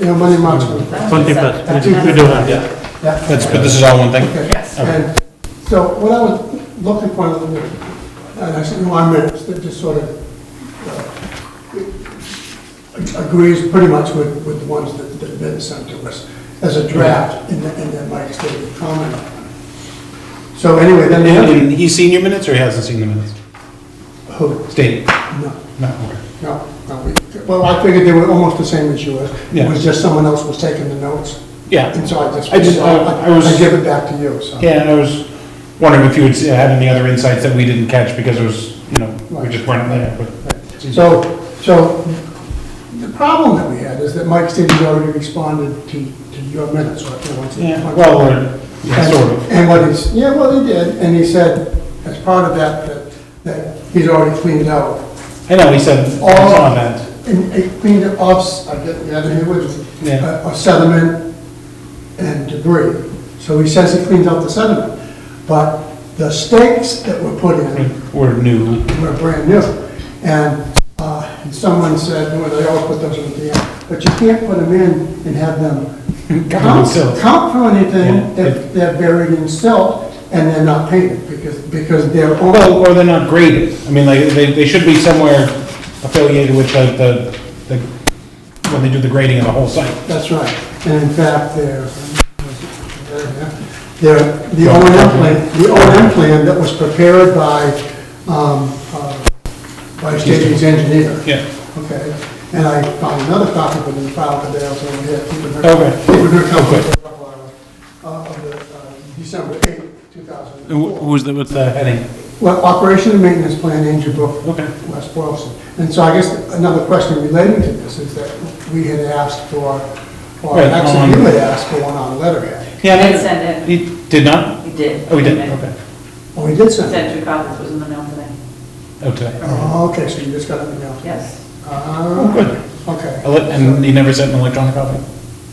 Yeah, Monday, March 1st. 21st, we do- we do have, yeah. Yeah. That's, but this is all one thing? Okay. And so what I was looking for, a little bit, and I said, no, I'm minutes, that just sort of uh, agrees pretty much with, with the ones that that have been sent to us as a draft, and that, and that Mike's going to comment on. So anyway, then the other, And he's seen your minutes or he hasn't seen the minutes? who, State. no, No, okay. no, no, we- well, I figured they were almost the same as yours. It Yeah. was just someone else was taking the notes, Yeah, and so I just, I just- I- I was- I give it back to you, so. yeah, and I was wondering if you had uh, had any other insights that we didn't catch because it was, you know, we just weren't there, but. So, so the problem that we had is that Mike Stevens already responded to, to your minutes, or if you want to. Yeah, well, we're- yeah, And- sort of. And what he's, yeah, well, he did, and he said, as part of that, that, that he's already cleaned out I know, he said, it's all. on that. And he cleaned it off, I get the other, words, Yeah. uh, of sediment and debris. So he says he cleaned out the sediment, but the stakes that were put in We're new. were brand new. And uh, and someone said, well, they all put those in the end, but you can't put them in and have them Covered in count silt. count for anything Yeah. if they're buried in silt and they're not painted, because, because they're all, Well, or they're not graded. I mean, like, they, they should be somewhere affiliated with the, the, the- when they do the grading of the whole site. that's right. And in fact, they're, they're, the O and M plan, the O and M plan that was prepared by, um, uh, by Stevens Engineer. Yeah. Okay, and I found another copy, but it's filed today, so I'm here, keeping her. Okay. Keeping her company for a couple hours, uh, of the, uh, December eighth, two thousand and Who- four. Who's the, what's the heading? Well, operation and maintenance plan, Andrew Brook, Okay. West Boylston. And so I guess another question relating to this is that we had asked for, or Right, actually on- you had asked for one on letterhead. Yeah, I Did mean- send it. He did not? We did. Oh, he did, okay. Oh, we did send it. Sent two copies, was in the mail today. Oh, today. Oh, okay, so you just got it in the mail. Yes. Oh, good. Okay. And he never sent an electronic copy?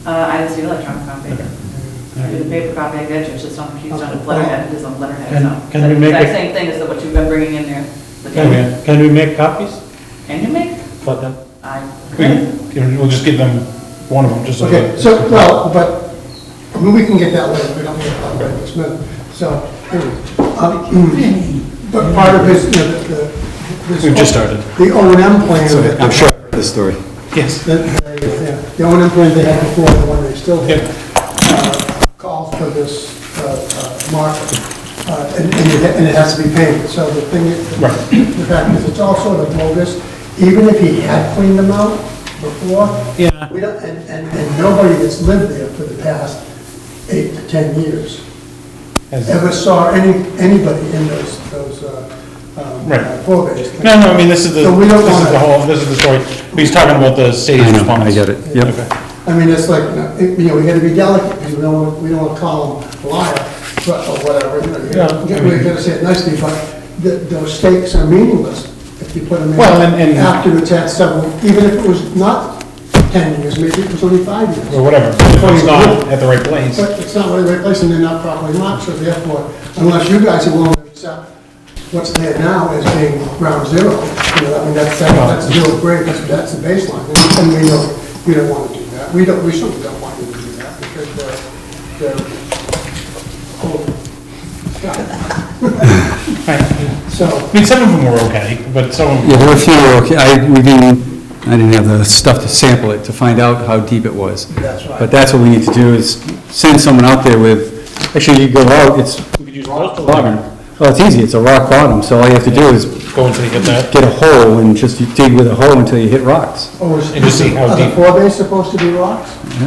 Uh, I just do electronic copy. I do the paper copy, I get you, it's just on, she's on a letterhead, it is on letterhead, Can- so. can we make Exact it- same thing as what you've been bringing in there. the Oh, Can day. we, can we make copies Can you make? for them? We I, can- can- We'll just give them one of them, just so. Okay, that- so, well, but, I mean, we can get that later, we don't need to talk about this minute, so, anyway. um, But part of his, you know, the, the. this- We've just started. The O and M plan. that- I'm sure of this story. Yes. that they- yeah, The O and M plan they had before, the one they still have, Yep. uh, calls for this uh, uh, mark, uh, and and it and it has to be painted. So the thing, is- Right. the fact is, it's all sort of bogus, even if he had cleaned them out before, Yeah. we don't, and, and, and nobody that's lived there for the past eight to 10 years As- ever saw any, anybody in those, those, uh, um, Right. uh, four-base. No, no, I mean, this is the, So we don't this is wanna- the whole, this is the story. He's talking about the state's I know, response. I get it, yep. Okay. I mean, it's like, you know, it- you know, we gotta be delicate, because we don't, wanna- we don't wanna call them liar, but, or whatever, you know, you gotta- Yeah, I we mean- gotta say it nicely, but th those stakes are meaningless if you put them in. Well, and- and- After it's had several, even if it was not 10 years, maybe it was only five years. Or whatever, if it's not at the right place. But it's not really replacing, they're not properly marked, so therefore, unless you guys are willing to accept what's there now as being ground zero, you know, I mean, that's, that- that's zero grade, that's, that's the baseline, and- and we don't, we don't wanna do that, we don't, we certainly don't want you to do that, because they're, they're, oh, God. Right. I So, mean, some of them were okay, but some of them. Yeah, there were a few, that were okay, I, we didn't, I didn't have the stuff to sample it, to find out how deep it was. That's right. But that's what we need to do, is send someone out there with, actually, you go out, it's We could use postal. bottom. Well, it's easy, it's a rock bottom, so all you have to do is Go until you get that. get a hole and just dig with a hole until you hit rocks. oh, is, And just see how are the deep- four bays supposed to be rocks? I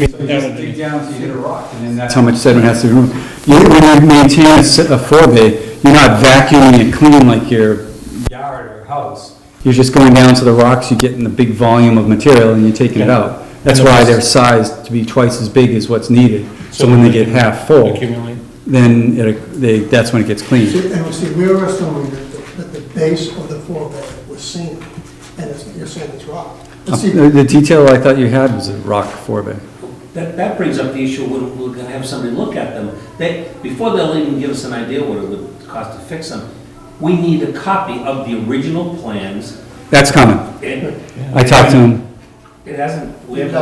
mean, that- down till you hit a rock, and then that's... how much sediment has to be removed. You, when you maintain a s- a forebay, you're not vacuuming it clean like your yard or house. You're just going down to the rocks, you're getting the big volume of material, and you're taking it Yeah. out. That's And the why rest- they're sized to be twice as big as what's needed, so when they get half full, Accumulate. then it, they, that's when it gets clean. See, And we see, we were assuming that the, that the base of the four bay was sand, and it's, you're saying it's rock. But see, The the detail I thought you had was a rock forebay. That, that brings up the issue, we're, we're gonna have somebody look at them. They, before they'll even give us an idea what it would cost to fix them, we need a copy of the original plans. That's common. And I talked to him It hasn't, we It haven't